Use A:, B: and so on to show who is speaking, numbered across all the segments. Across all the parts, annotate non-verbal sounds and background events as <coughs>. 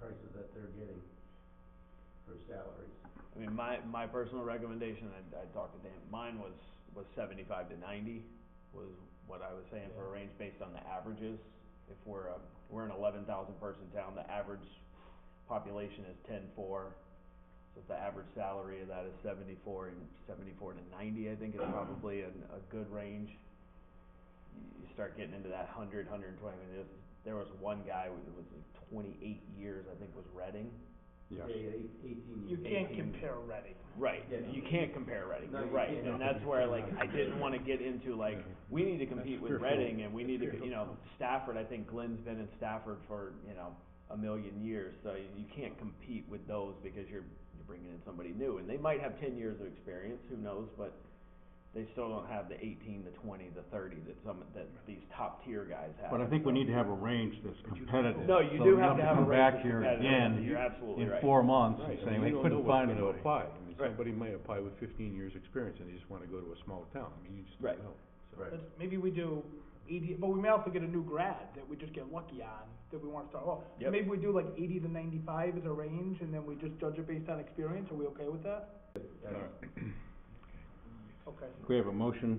A: they're getting for salaries.
B: I mean, my, my personal recommendation, I, I talked to Dan, mine was, was seventy-five to ninety, was what I was saying for a range based on the averages. If we're, um, we're an eleven thousand person town, the average population is ten-four. So if the average salary of that is seventy-four and seventy-four to ninety, I think is probably an, a good range. You- You start getting into that hundred, hundred and twenty, I mean, there's, there was one guy, who was like twenty-eight years, I think, was Reading.
A: Yeah, yeah, eight- eighteen
C: You
A: years.
C: can't
A: Eighteen.
C: compare Reading.
B: Right,
A: Yeah, no.
B: you can't compare Reading,
A: No,
B: you're
A: you
B: right,
A: can't.
B: and that's where like, I didn't wanna get into like, we need to compete with
D: fearful.
B: Reading and we need to,
D: That's
B: you know, Stafford, I think Glenn's been in Stafford for, you know, a million years, so you you can't compete with those because you're, you're bringing in somebody new, and they might have ten years of experience, who knows, but they still don't have the eighteen, the twenty, the thirty that some, that these top tier guys have.
D: But I think we
B: so.
D: need to have a range that's competitive.
B: No, you
D: so
B: do
D: we
B: have
D: don't
B: to have a
D: come
B: right
D: back here
B: you're
D: again
B: absolutely
D: in
B: right.
D: four months
E: Right,
D: and
E: I
D: saying
E: mean,
D: they
E: you don't know
D: couldn't
E: what's
D: find
E: gonna
D: anybody.
E: apply. I mean,
B: Right.
E: somebody might apply with fifteen years' experience and they just wanna go to a smaller town, I mean, you just
B: Right.
E: don't know, so.
A: Right.
C: But maybe we do eighty, but we may also get a new grad that we just get lucky on, that we wanna start off.
B: Yep.
C: So Maybe we do like eighty to ninety-five as a range, and then we just judge it based on experience, are we okay with that?
A: That's-
C: Okay.
D: We have a motion.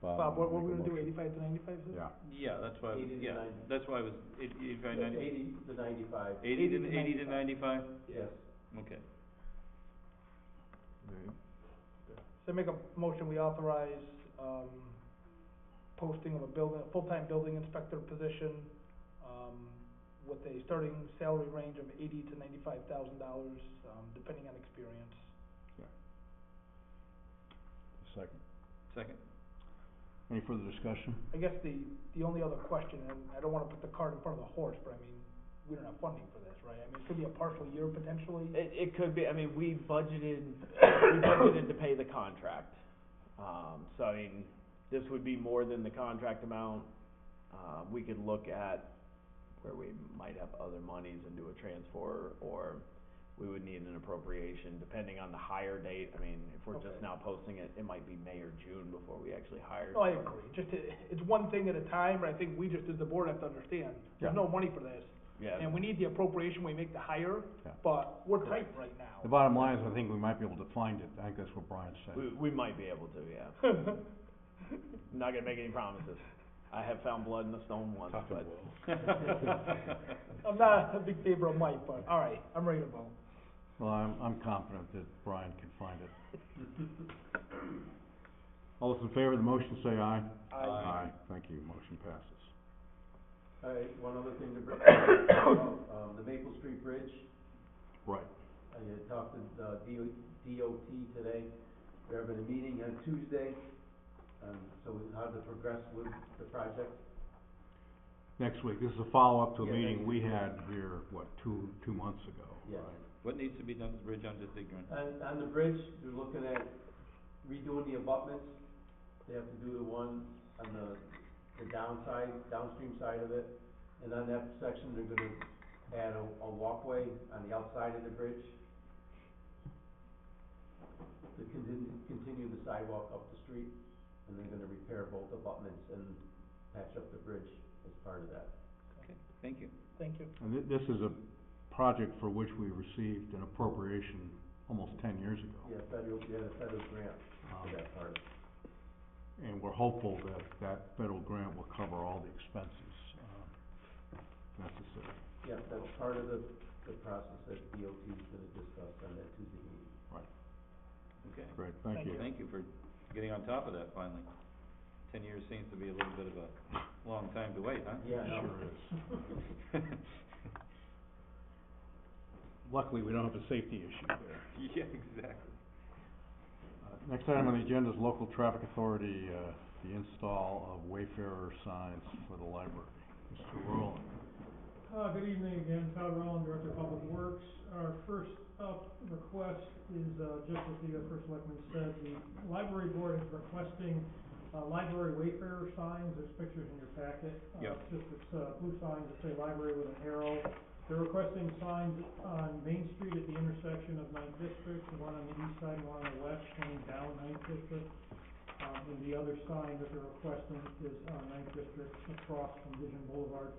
C: Bob, what, what
D: Um, make a
C: we gonna do,
D: motion.
C: eighty-five to ninety-five, is it?
D: Yeah.
F: Yeah, that's why,
A: Eighty to
F: yeah,
A: ninety.
F: that's why I was, eighty, eighty,
A: that's
F: ninety,
A: Eighty to ninety-five,
F: eighty
C: Eighty to
F: to, eighty to ninety-five,
A: yes.
F: okay.
C: So make a motion, we authorize, um, posting of a building, a full-time building inspector position, um, with a starting salary range of eighty to ninety-five thousand dollars, um, depending on experience.
D: Second.
F: Second.
D: Any further discussion?
C: I guess the, the only other question, and I don't wanna put the cart in front of the horse, but I mean, we don't have funding for this, right? I mean, it could be a partial year potentially.
B: It, it could be, I mean, we
F: <coughs>
B: budgeted, we budgeted to pay the contract. Um, so I mean, this would be more than the contract amount. Uh, we could look at where we might have other monies and do a transfer, or we would need an appropriation, depending on the hire date. I mean, if we're just
C: Okay.
B: now posting it, it might be May or June before we actually hire.
F: Oh,
C: No, I
B: someone.
C: agree, just, it- it's one thing at a time, but I think we just, as the board, have to understand,
D: Yeah.
C: there's no money for this.
B: Yeah.
C: And we need the appropriation, we make the hire,
D: Yeah.
C: but we're tight right now.
D: The bottom line is, I think we might be able to find it. I think that's what Brian said.
B: We, we might be able to, yeah. I'm not gonna make any promises. I have found blood in the stone once,
E: Tough
B: but.
E: and well.
C: <laughs>
B: <laughs>
C: I'm not a big favor of Mike, but, all right, I'm ready to vote.
D: Well, I'm, I'm confident that Brian can find it. All those in favor of the motion, say aye. Aye. Thank you. Motion passes.
A: All right, one other thing to <coughs> bring, um, the Maple Street Bridge,
D: Right.
A: I had talked to, uh, DO, DOT today, they're having a meeting on Tuesday, um, so with how to progress with the project.
D: Next week, this is a follow-up to a
A: Yeah,
D: meeting
A: next
D: we had here, what, two, two months ago?
A: Yes.
D: right?
F: What needs to be done to the bridge, I'm just ignorant.
A: On, on the bridge, they're looking at redoing the abutments, they have to do the one on the, the downside, downstream side of it. And on that section, they're gonna add a, a walkway on the outside of the bridge. To continue, continue the sidewalk up the street, and they're gonna repair both abutments and patch up the bridge as part of that.
F: Okay, thank you.
C: Thank you.
D: And thi- this is a project for which we received an appropriation almost ten years ago.
A: Yeah, federal, yeah, the federal grant for
D: Um,
A: that part.
D: And we're hopeful that that federal grant will cover all the expenses, uh, necessary.
A: Yeah, that's part of the, the process that DOT is gonna discuss on that Tuesday meeting.
F: Okay,
D: Great, thank
C: Thank
D: you.
F: thank you for getting on top of that finally. Ten years seems to be a little bit of a long time to wait, huh?
A: Yeah,
D: It
A: no.
D: Sure is. Luckily, we don't have a safety issue there.
F: <laughs> Yeah, exactly.
D: Uh, Next item on the agenda is local traffic authority, uh, the install of Wayfarer signs for the library. Mr. Rowland.
G: Uh, good evening again, Todd Rowland, Director of Public Works. Our first up request is, uh, just as the uh, first selectman said, the library board is requesting, uh, library wayfarer signs, there's pictures in your packet. Uh,
F: Yeah.
G: It's just, it's, uh, blue signs that say library with an arrow. They're requesting signs on Main Street at the intersection of Ninth District, the one on the east side, one on the west, coming down Ninth District. Um, and the other sign that they're requesting is on Ninth District across from Vision Boulevard